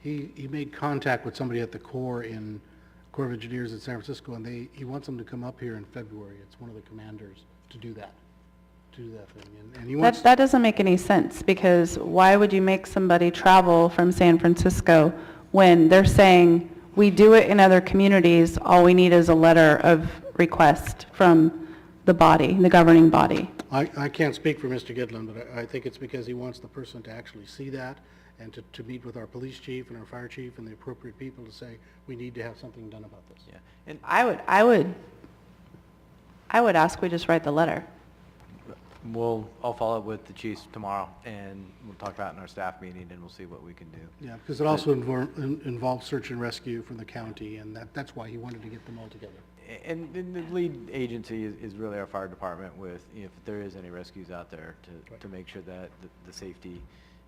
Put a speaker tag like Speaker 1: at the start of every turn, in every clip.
Speaker 1: He, he made contact with somebody at the Corps in, Corps of Engineers in San Francisco, and they, he wants them to come up here in February. It's one of the commanders to do that, to do that thing. And- And he wants,
Speaker 2: That, that doesn't make any sense, because why would you make somebody travel from San Francisco when they're saying, we do it in other communities, all we need is a letter of request from the body, the governing body?
Speaker 1: I, I can't speak for Mr. Gidlin, but I, I think it's because he wants the person to actually see that and to, to meet with our police chief and our fire chief and the appropriate people to say, we need to have something done about this.
Speaker 3: Yeah, and
Speaker 2: I would, I would, I would ask we just write the letter.
Speaker 3: we'll, I'll follow up with the chiefs tomorrow, and we'll talk about it in our staff meeting, and we'll see what we can do.
Speaker 1: Yeah, because it also invor- in- involves search and rescue from the county, and that, that's why he wanted to get them all together.
Speaker 3: A- And, and the lead agency is, is really our fire department with, you know, if there is any rescues out there, to,
Speaker 1: Right.
Speaker 3: to make sure that the, the safety,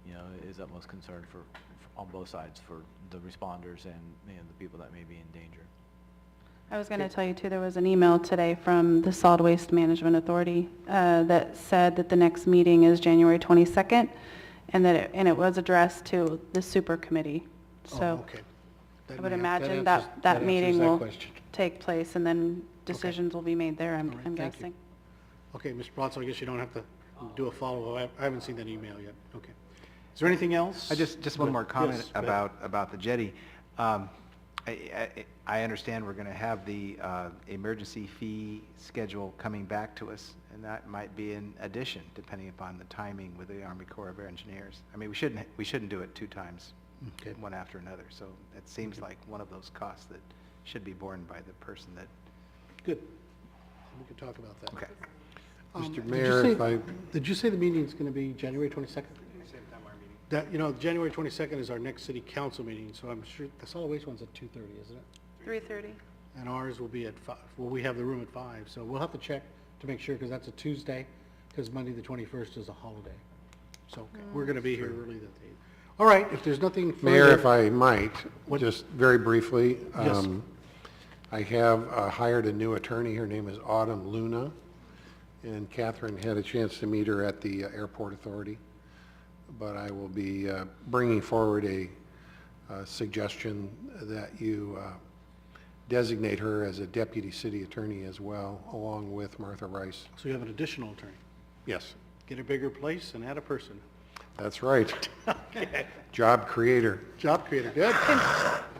Speaker 3: you know, is utmost concern for, for- on both sides, for the responders and, and the people that may be in danger.
Speaker 2: I was going to tell you too, there was an email today from the Solid Waste Management Authority uh, that said that the next meeting is January 22nd, and that, it- and it was addressed to the super committee.
Speaker 1: Oh,
Speaker 2: So
Speaker 1: okay.
Speaker 2: I
Speaker 1: That
Speaker 2: would
Speaker 1: may-
Speaker 2: imagine
Speaker 1: answers-
Speaker 2: that, that
Speaker 1: answers
Speaker 2: meeting will
Speaker 1: question.
Speaker 2: take place, and then decisions will be made there, I'm
Speaker 1: All right,
Speaker 2: I'm
Speaker 1: thank you.
Speaker 2: guessing.
Speaker 1: Okay, Mr. Palazzo, I guess you don't have to do a follow-up. I I haven't seen that email yet. Okay. Is there anything else?
Speaker 4: I just, just one more comment
Speaker 1: Yes, go ahead.
Speaker 4: about, about the jetty. Um, I, I, I understand we're going to have the uh, emergency fee schedule coming back to us, and that might be in addition, depending upon the timing with the Army Corps of Engineers. I mean, we shouldn't, we shouldn't do it two times,
Speaker 1: Okay.
Speaker 4: one after another, so it seems like one of those costs that should be borne by the person that,
Speaker 1: Good. We can talk about that.
Speaker 4: okay.
Speaker 1: Um,
Speaker 5: Mr.
Speaker 1: did you
Speaker 5: Mayor, if
Speaker 1: say-
Speaker 5: I-
Speaker 1: Did you say the meeting's going to be January 22nd? That, you know, January 22nd is our next city council meeting, so I'm sure, the solid waste one's at 2:30, isn't it?
Speaker 2: 3:30?
Speaker 1: And ours will be at five, well, we have the room at five, so we'll have to check to make sure, because that's a Tuesday, because Monday, the twenty-first is a holiday. So we're gonna be here early that day. All right, if there's nothing further.
Speaker 5: Mayor, if I might,
Speaker 1: What-
Speaker 5: just very briefly.
Speaker 1: Yes.
Speaker 5: um, I have uh, hired a new attorney. Her name is Autumn Luna. And Catherine had a chance to meet her at the uh, Airport Authority. But I will be uh, bringing forward a uh, suggestion that you uh, designate her as a deputy city attorney as well, along with Martha Rice.
Speaker 1: So you have an additional attorney.
Speaker 5: Yes,
Speaker 1: Get a bigger place and add a person.
Speaker 5: that's right. Job creator.
Speaker 1: Job creator, good.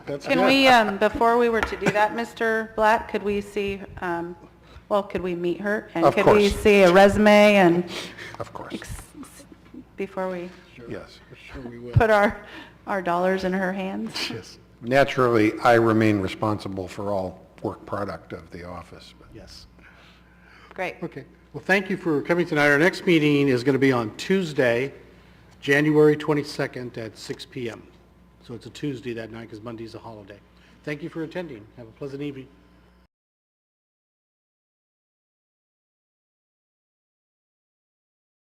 Speaker 1: That's
Speaker 2: Can
Speaker 1: good.
Speaker 2: we, um, before we were to do that, Mr. Black, could we see, um, well, could we meet her?
Speaker 5: Of
Speaker 2: And could we
Speaker 5: course.
Speaker 2: see a resume and,
Speaker 5: Of course,
Speaker 2: ex- before we...
Speaker 5: yes.
Speaker 1: Sure we will.
Speaker 2: put our, our dollars in her hands.
Speaker 5: Yes. Naturally, I remain responsible for all work product of the office, but
Speaker 1: Yes.
Speaker 2: Great.
Speaker 1: Okay. Well, thank you for coming tonight. Our next meeting is gonna be on Tuesday, January twenty-second at six PM. So it's a Tuesday that night, because Monday's a holiday. Thank you for attending. Have a pleasant evening.